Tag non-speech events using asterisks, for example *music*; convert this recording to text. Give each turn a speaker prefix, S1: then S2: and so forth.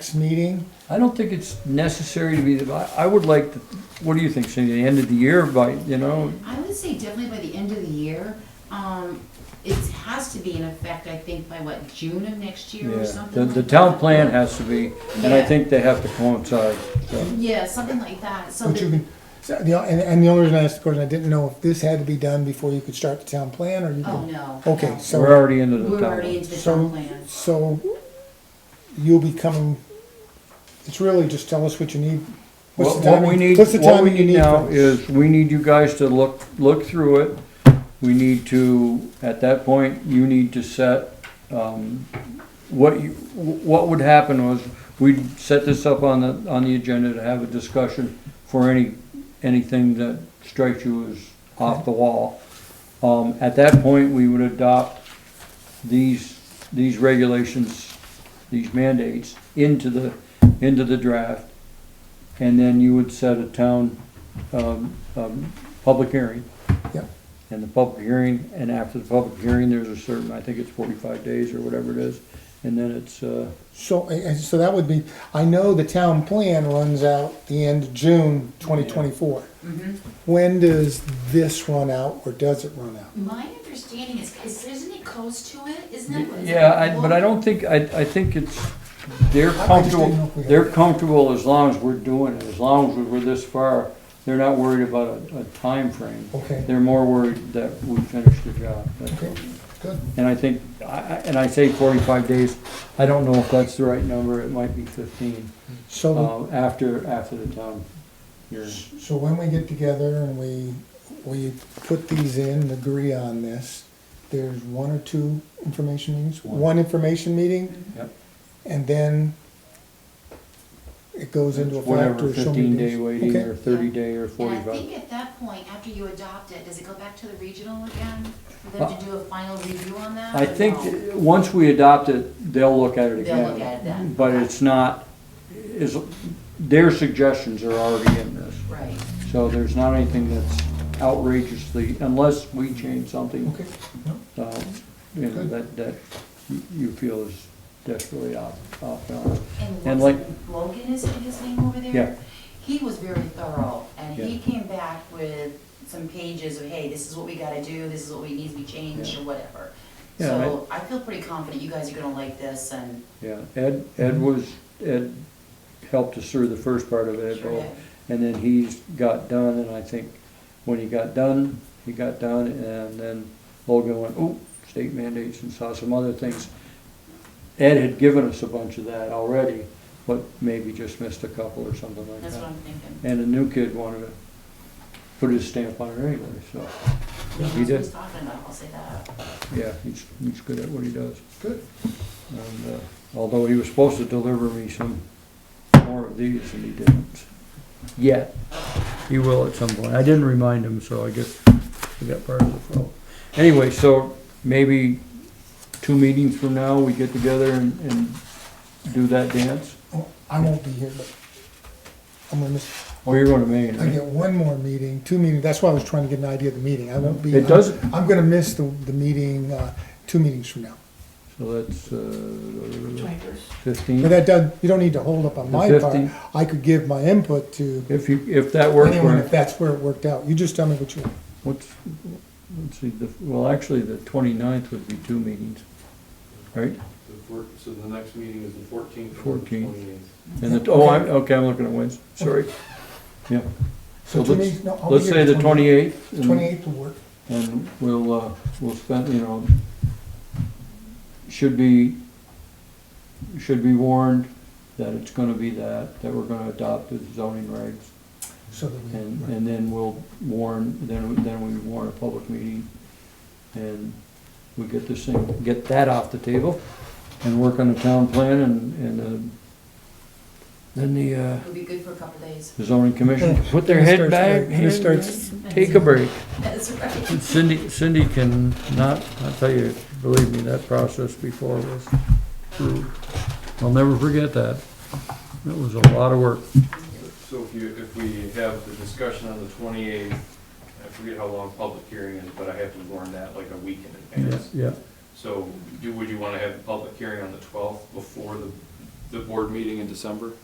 S1: next meeting?
S2: I don't think it's necessary to be, the- I, I would like, to- what do you think, Cindy, the end of the year by, you know?
S3: I would say definitely by the end of the year. Um, it has to be in effect, I think, by what, June of next year or
S2: yeah.
S3: something
S2: The,
S3: like
S2: the town
S3: that?
S2: plan has to be, and I
S3: Yeah.
S2: think they have to coincide, so.
S3: Yeah, something like that, so
S1: But you
S3: that,
S1: can, so the, and, and the only reason I asked the question, I didn't know if this had to be done before you could start the town plan, or you
S3: oh,
S1: could.
S3: no.
S1: Okay,
S3: no.
S2: We're
S1: so,
S2: already into the
S3: We're already
S2: town.
S3: into the town
S1: so,
S3: plan.
S1: so you'll be coming, it's really just tell us what you need. What's
S2: What
S1: the
S2: what we
S1: timing-
S2: need,
S1: what's the
S2: what we
S1: timing you
S2: need now
S1: for-
S2: is, we need you guys to look, look through it. We need to, at that point, you need to set, um, what you, what would happen was, we'd set this up on the, on the agenda to have a discussion for any, anything that strikes you as off the wall. Um, at that point, we would adopt these, these regulations, these mandates into the, into the draft. And then you would set a town, um, um, public hearing.
S1: Yep.
S2: And the public hearing, and after the public hearing, there's a certain, I think it's forty-five days or whatever it is, and then it's, uh,
S1: So, and- and so that would be, I know the town plan runs out the end of June twenty twenty-four.
S3: Mhm.
S1: When does this run out, or does it run out?
S3: My understanding is, is, isn't it close to it? Isn't it? is it
S2: Yeah, I,
S3: like-
S2: but I don't think, I, I think it's, they're
S1: I- I just didn't know
S2: comfortable,
S1: if we had-
S2: they're comfortable as long as we're doing it, as long as we're this far. They're not worried about a, a timeframe.
S1: Okay.
S2: They're more worried that we finish the job. that's all.
S1: Okay, good.
S2: And I think, I, I- and I say forty-five days, I don't know if that's the right number, it might be fifteen,
S1: So. the-
S2: uh, after, after the town. hearing.
S1: So when we get together and we, we put these in, and agree on this, there's one or two information meetings?
S2: One.
S1: One information meeting,
S2: Yep.
S1: and then it goes into a factor
S2: Whatever,
S1: or so many
S2: fifteen day
S1: days.
S2: waiting
S1: Okay.
S2: or thirty day or
S3: And I
S2: forty-five.
S3: think at that point, after you adopt it, does it go back to the regional again? For them to do a final review on that?
S2: Uh, I
S3: or
S2: think,
S3: no?
S2: that once we adopt it, they'll look at it again.
S3: They'll look at it then.
S2: But it's not, is, their suggestions are already in this,
S3: Right.
S2: so there's not anything that's outrageously, unless we change something,
S1: Okay, no,
S2: uh, you know,
S1: Good.
S2: that, that you- you feel is desperately off, off balance. And
S3: And
S2: like-
S3: Logan, Logan is his name over there?
S2: Yeah.
S3: He was very thorough, and he
S2: Yeah.
S3: came back with some pages of, hey, this is what we gotta do, this is what we needs to be changed, or whatever.
S2: Yeah,
S3: So I feel pretty confident you guys are gonna like this, and
S2: Yeah, Ed, Ed
S3: Mm-hmm.
S2: was, Ed helped us through the first part of it, Ed
S3: sure
S2: Bol-
S3: did.
S2: And then he's got done, and I think when he got done, he got done, and then Logan went, oh, state mandates and saw some other things. Ed had given us a bunch of that already, but maybe just missed a couple or something like
S3: That's what
S2: that.
S3: I'm thinking.
S2: And a new kid wanted to put his stamp on it anyway, so, Yeah, he
S3: knows what
S2: did.
S3: he's talking about, I'll say that.
S2: yeah, he's, he's good at what he does.
S1: good.
S2: And, uh, although he was supposed to deliver me some more of these and he didn't. Yet. He will at some point. I didn't remind him, so I guess we got part of the problem. Anyway, so maybe two meetings from now, we get together and, and do that dance.
S1: Oh, I won't be here, but I'm gonna miss,
S2: Oh, you're going to Maine,
S1: I
S2: right?
S1: get one more meeting, two meetings, that's why I was trying to get an idea of the meeting, I won't be. uh,
S2: It doesn't-
S1: I'm gonna miss the, the meeting, uh, two meetings from now.
S2: So that's, uh,
S4: Twenty-first.
S1: But
S2: fifteen.
S1: that does, you don't need to hold up on
S2: The
S1: my part.
S2: 15.
S1: I could give my input to
S2: If you, if that works
S1: anyone
S2: for
S1: if
S2: him.
S1: that's where it worked out. You just tell me what you want.
S2: What's, let's see, the, well, actually, the twenty-ninth would be two meetings, right?
S5: The four- So the next meeting is the fourteenth.
S2: 14th.
S5: Twenty-eighth.
S2: And the, oh, I'm, okay, I'm looking at Wednesday, sorry. Yeah, So
S1: two
S2: let's-
S1: meetings- no, I'll be
S2: let's
S1: here
S2: say the twenty-eighth.
S1: Twenty-eighth will work.
S2: And we'll, uh, we'll spend, you know, should be, should be warned that it's gonna be that, that we're gonna adopt the zoning regs.
S1: So that we,
S2: And, and then we'll warn, then, then we warn a public meeting. And we get this thing, get that off the table and work on the town plan and, and, uh, then the, uh,
S3: It'll be good for a couple of days.
S2: the zoning
S1: *laughs*
S2: commission, can put their
S1: It
S2: head
S1: starts
S2: back,
S1: right- it
S2: hand
S1: starts-
S2: back, take a break.
S3: *laughs*
S2: *laughs*
S3: That's right.
S2: Cindy, Cindy can not, I tell you, believe me, that process before was, brutal. I'll never forget that. That was a lot of work.
S5: So if you, if we have the discussion on the twenty-eighth, I forget how long public hearing is, but I have to warn that like a week in
S2: Yeah,
S5: advance.
S2: yeah.
S5: So do, would you want to have the public hearing on the twelfth before the the board meeting in December?